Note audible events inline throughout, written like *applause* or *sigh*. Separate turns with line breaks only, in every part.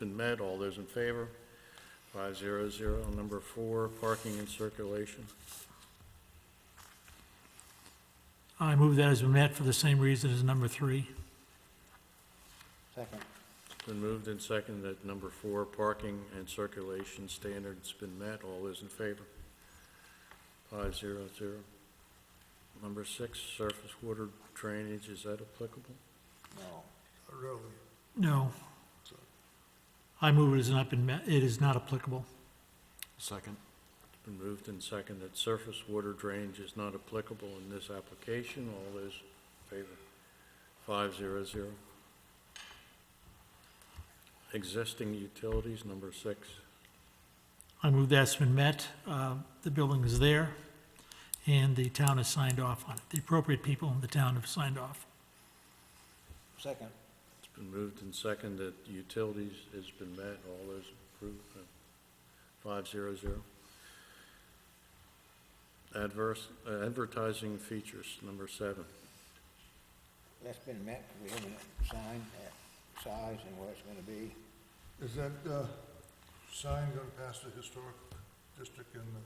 Been met, all those in favor? Five zero zero. Number four, parking and circulation.
I move that as met for the same reason as number three.
Second.
It's Been moved and seconded that number four, parking and circulation standards been met, all those in favor? Five zero zero. Number six, surface water drainage, is that applicable?
No.
Really?
No. I move it has not been met, it is not applicable.
Second.
It's Been moved and seconded that surface water drainage is not applicable in this application, all those in favor? Five zero zero. Existing utilities, number six.
I move that's been met, uh, the building is there, and the town has signed off on it. The appropriate people in the town have signed off.
Second.
It's been moved and seconded that utilities has been met, all those approved, five zero zero. Adverse, uh, advertising features, number seven.
That's been met, we haven't signed that size and where it's gonna be.
Is that uh, sign going to pass the historic district and the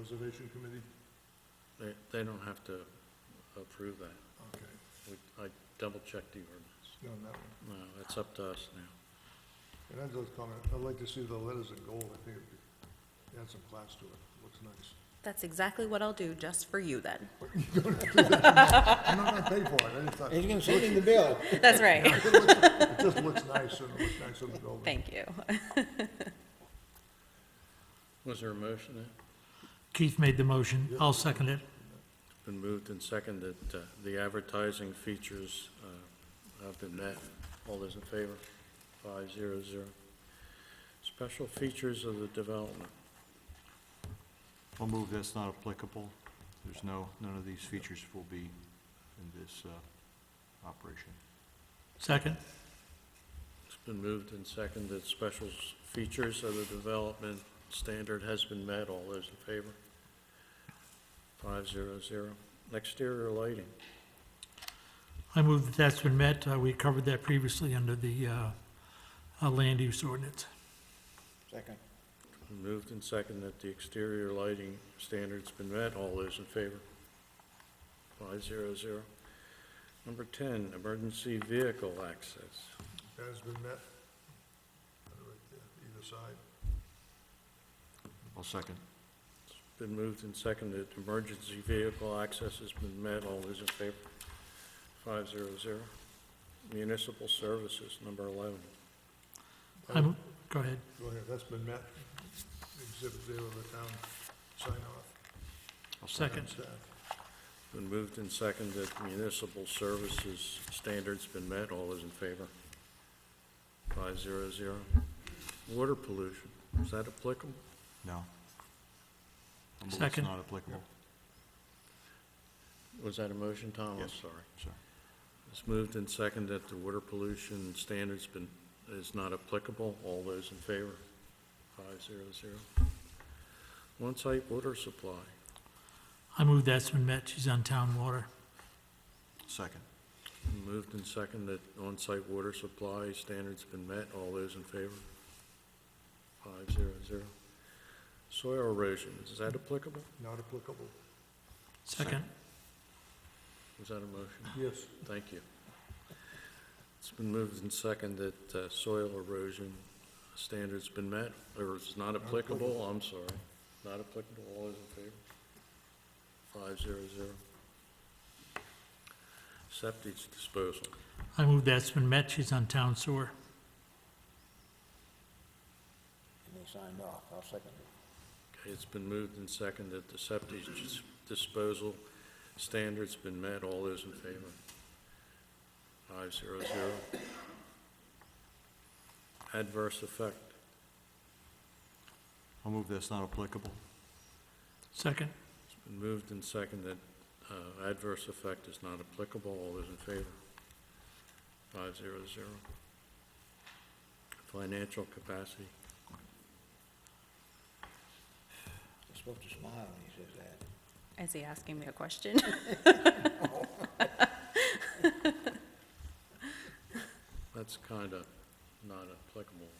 preservation committee?
They, they don't have to approve that.
Okay,
We- I double-checked the ordinance.
it's on that one.
No, it's up to us now.
And Enzo's comment, I'd like to see the letters in gold, I think it'd be- add some class to it, looks nice.
That's exactly what I'll do, just for you then.
I'm not going to pay for it, I just thought,
He's
it
gonna send him the bill.
That's *laughs* right.
just looks nice, and it looks nice on the building.
Thank you.
Was there a motion there?
Keith made the motion, I'll second it.
Been moved and seconded, uh, the advertising features uh, have been met. All those in favor? Five zero zero. Special features of the development.
I'll move that's not applicable. There's no, none of these features will be in this uh, operation.
Second?
It's been moved and seconded, special s- features of the development standard has been met. All those in favor? Five zero zero. Exterior lighting.
I move that that's been met, Uh, we covered that previously under the uh, uh, land use ordinance.
Second.
Moved and seconded that the exterior lighting standards been met. All those in favor? Five zero zero. Number ten, emergency vehicle access.
That has been met, right there, either side.
I'll second.
Been moved and seconded, emergency vehicle access has been met. All those in favor? Five zero zero. Municipal services, number eleven.
I'm, go ahead.
Go ahead, that's been met, exhibit there with the town sign off.
I'll
Second.
Staff.
Been moved and seconded, municipal services standards been met. All those in favor? Five zero zero. Water pollution, is that applicable?
No. I'll move
Second.
It's not applicable.
Was that a motion, Tom? I'm
Yes.
sorry.
Sorry.
It's moved and seconded that the water pollution standards been, is not applicable. All those in favor? Five zero zero. On-site water supply.
I move that's been met, she's on town water.
Second.
Moved and seconded that on-site water supply standards been met. All those in favor? Five zero zero. Soil erosion, is that applicable?
Not applicable.
Second?
Is that a motion?
Yes.
Thank you. It's been moved and seconded that uh, soil erosion standards been met, or it's not applicable, I'm sorry. Not applicable, all those in favor? Five zero zero. Septic disposal.
I move that's been met, she's on town sewer.
And he signed off, I'll second it.
Okay, it's been moved and seconded that the septic dis- disposal standards been met, all those in favor? Five zero zero. Adverse effect.
I'll move that's not applicable.
Second?
Been Moved and seconded, uh, adverse effect is not applicable, all those in favor? Five zero zero. Financial capacity,
He's supposed to smile when he says that.
Is he asking me a question?
that's kind of not applicable